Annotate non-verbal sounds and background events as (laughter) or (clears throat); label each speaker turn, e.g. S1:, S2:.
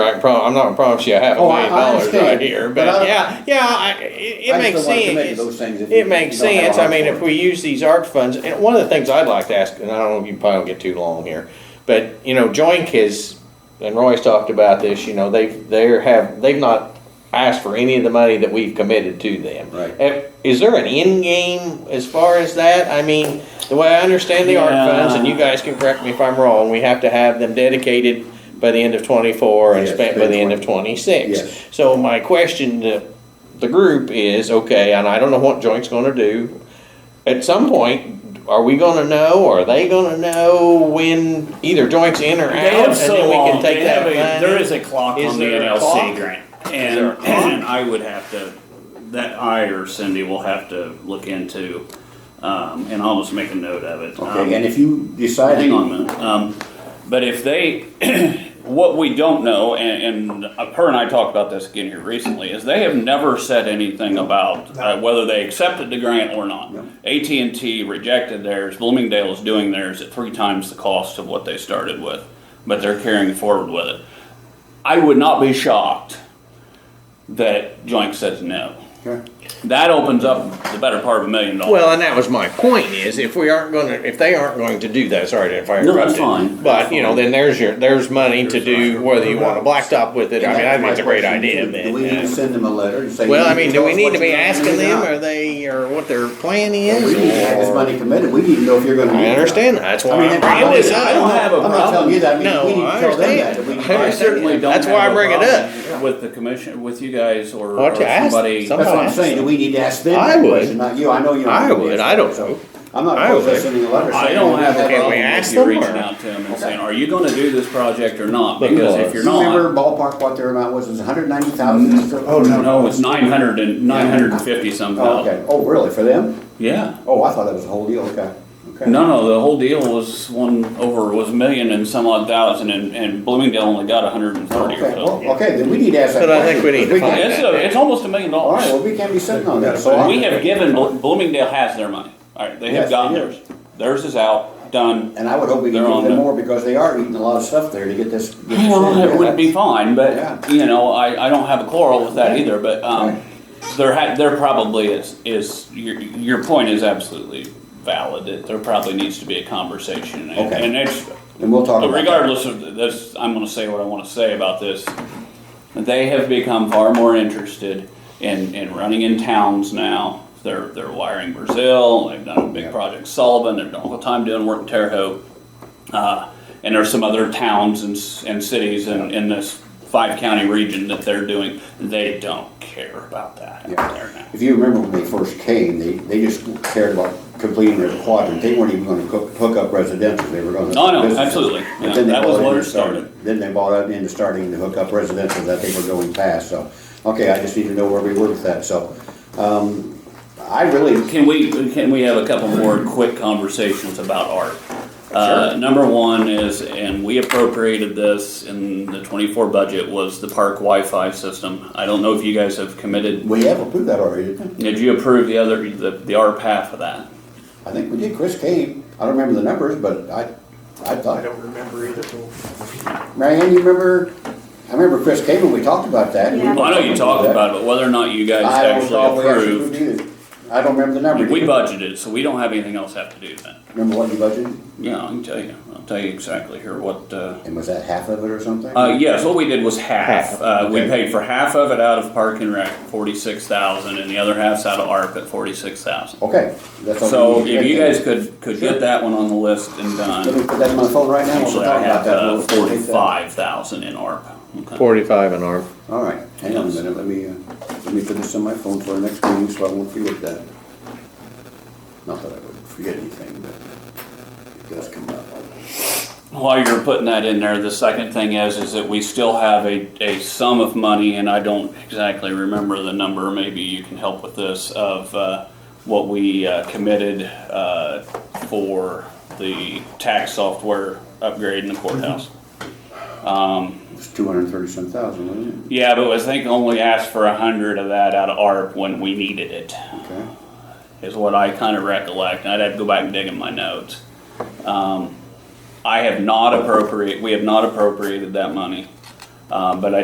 S1: I can prom, I'm not gonna promise you a half a
S2: Oh, I-
S1: million
S2: I
S1: dollars
S2: understand.
S1: right here,
S2: But
S1: but
S2: I-
S1: yeah, yeah, I, it, it
S2: I just
S1: makes
S2: don't wanna commit to
S1: sense.
S2: those things if you-
S1: It makes
S2: you don't have a
S1: sense, I
S2: heart
S1: mean,
S2: for
S1: if
S2: it.
S1: we use these ARC funds, and one of the things I'd like to ask, and I don't know if you probably don't get too long here, but, you know, Joink has, and Roy's talked about this, you know, they've, they're have, they've not asked for any of the money that we've committed to them.
S2: Right.
S1: Eh, Is there an end game as far as that? I mean, the way I understand the ARC
S3: Yeah.
S1: funds, and you guys can correct me if I'm wrong, we have to have them dedicated by the end of twenty-four and
S2: Yes,
S1: spent by the end of twenty-six.
S2: Yes.
S1: So my question to the group is, okay, and I don't know what Joint's gonna do. At some point, are we gonna know, or are they gonna know when either Joint's in or out?
S3: They have
S1: and
S3: so
S1: then we can
S3: long.
S1: take
S3: They
S1: that
S3: have a-
S1: money?
S3: There is a clock
S1: Is
S3: on the
S1: there a
S3: NLC
S1: clock?
S3: grant,
S1: there a
S3: and,
S1: clock?
S3: and I would have to, that I or Cindy will have to look into, um, and I'll just make a note of it. Um,
S2: Okay, and if you decide.
S3: Hang on a minute. Um, but if they, (clears throat) what we don't know, and, and her and I talked about this again here recently, is they have never said anything about uh, whether they accepted the grant or not.
S2: No.
S3: AT and T rejected theirs. Bloomingdale is doing theirs at three times the cost of what they started with, but they're carrying forward with it. I would not be shocked that Joint says no.
S2: Okay.
S3: That opens up the better part of a million dollars.
S1: Well, and that was my point is if we aren't gonna, if they aren't going to do that, sorry if I
S3: No,
S1: interrupted.
S3: that's fine.
S1: But, you know, then there's your, there's money to do whether you want a blacktop with it. I mean, I think it's a great idea
S2: Do-
S1: then.
S2: Do we need
S1: yeah.
S2: to send them a letter and say?
S1: Well,
S2: you
S1: I mean,
S2: tell
S1: do we
S2: us
S1: need
S2: what
S1: to be
S2: you're gonna do
S1: asking them,
S2: now?
S1: or they, or what their plan
S2: We need to have
S1: is?
S2: this
S1: or-
S2: money committed, we need to know if you're gonna.
S1: I
S2: use it.
S1: understand, that. that's
S2: I
S1: why
S2: mean,
S1: I'm
S2: I
S1: bringing this
S2: don't-
S1: up.
S2: I don't have a problem. I'm not telling you that, I
S1: No,
S2: mean, we need
S1: I
S2: to tell them
S1: understand.
S2: that, that. we-
S1: I
S3: I certainly don't.
S1: That's
S3: have
S1: why I
S3: a
S1: bring it up.
S3: problem With the commission, with you guys or
S1: Well,
S3: or
S1: to ask
S3: somebody.
S1: somebody.
S2: That's what I'm saying, do we need to ask them
S1: I
S2: that
S1: would.
S2: question, not you, I know you. don't
S1: I
S2: have to
S1: would.
S2: answer
S1: I don't
S2: that,
S1: know.
S2: so I'm not
S1: I
S2: opposed to
S1: would.
S2: sending a letter.
S3: I
S2: saying
S3: don't
S2: we
S3: have a
S1: Can we
S3: problem with
S1: ask
S3: you
S1: them,
S3: reaching
S1: or-
S3: out to them and
S2: Okay.
S3: saying, are you gonna do this project or not?
S1: Look,
S3: Because
S1: uh,
S3: if you're
S2: Do you remember
S3: not,
S2: ballpark what their amount was, it was hundred ninety thousand?
S4: Oh, no.
S3: no, it's nine hundred and, nine hundred and fifty some
S2: Okay,
S3: thousand.
S2: oh, really, for them?
S3: Yeah.
S2: Oh, I thought that was the whole deal, okay. Okay.
S3: No, no, the whole deal was one over, was a million and some odd thousand and, and Bloomingdale only got hundred and thirty or
S2: Okay,
S3: so.
S2: well, okay, then we need to ask that
S1: But
S2: question.
S1: I think we need to find-
S2: can-
S3: It's, a- it's almost a million
S2: All right,
S3: dollars.
S2: well, we can't be sitting on that, so. I-
S3: We have given, Blo- Bloomingdale has their money. All right, they
S2: Yes, they
S3: have gotten
S2: do.
S3: theirs. Theirs is out, done.
S2: And I would hope we can
S3: They're
S2: give
S3: on
S2: them
S3: the-
S2: more because they are eating a lot of stuff there to get this. get this
S3: Well,
S2: in.
S3: it would be fine,
S2: Yeah.
S3: but, you know, I, I don't have a quarrel with that either, but, um, there ha, there probably is, is, your, your point is absolutely valid, that there probably needs to be a conversation. And
S2: Okay.
S3: and it's,
S2: And we'll talk
S3: but
S2: about that.
S3: regardless of this, I'm gonna say what I wanna say about this. They have become far more interested in, in running in towns now. They're, they're wiring Brazil, they've done a big project Sullivan, they've done all the time doing work in Terre Haute. Uh, and there's some other towns and, s- and cities in, in this five county region that they're doing. They don't care about that
S2: Yeah.
S3: out there now.
S2: If you remember when they first came, they, they just cared about completing their quadrant. They weren't even gonna cook, hook up residential, they were gonna.
S3: No, no,
S2: businesses.
S3: absolutely.
S2: But
S3: Yeah,
S2: then they
S3: that was
S2: bought
S3: what
S2: into
S3: it started.
S2: Then they bought up into starting to hook up residential that they were going past, so, okay, I just need to know where we were with that, so. Um, I really,
S3: Can we, can we have a couple more quick conversations about art? Uh, number one is, and we appropriated this in the twenty-four budget, was the park Wi-Fi system. I don't know if you guys have committed,
S2: we have approved that already, didn't we?
S3: did you approve the other, the, the ARP half of that?
S2: I think we did, Chris came, I don't remember the numbers, but I, I
S4: I
S2: thought,
S4: don't remember either.
S2: Mary Ann, you remember, I remember Chris came and we talked about that. and we-
S5: Yeah.
S3: Well, I know you talked about it, but whether or not you guys
S2: I don't know if
S3: actually
S2: we actually
S3: approved,
S2: approved either. I don't remember the number.
S3: we
S2: did
S3: budgeted, so we don't have anything else have to do then.
S2: Remember what you budgeted,
S3: Yeah, I can tell you, I'll tell you exactly here what, uh,
S2: and was that half of it or something?
S3: Uh, yes, what we did was half.
S1: Half,
S3: Uh, we
S2: okay.
S3: paid for half of it out of Park and Rec, forty-six thousand, and the other half's out of ARP at forty-six thousand.
S2: Okay, that's all.
S3: So
S2: we need to
S3: if you
S2: get
S3: guys could, could get that one on the list and
S2: then. Let
S3: done.
S2: me put that in my phone right now, we'll
S3: Actually, I
S2: talk about
S3: have
S2: that.
S3: uh,
S2: We'll take that.
S3: forty-five thousand in ARP. Okay.
S1: Forty-five and arm.
S2: All right, hang on a minute, let me, uh, let me put this on my phone for our next meeting, so I won't forget that. Not that I would forget anything, but it does come up.
S3: While you're putting that in there, the second thing is, is that we still have a, a sum of money, and I don't exactly remember the number, maybe you can help with this, of, uh, what we uh, committed, uh, for the tax software upgrade in the courthouse. Um,
S2: It's two hundred and thirty-some thousand, wasn't
S3: yeah, but I think only asked for a hundred of that out of ARP when we needed
S2: it?
S3: it
S2: Okay.
S3: is what I kind of recollect. I'd have to go back and dig in my notes. Um, I have not appropriate, we have not appropriated that money, uh, but I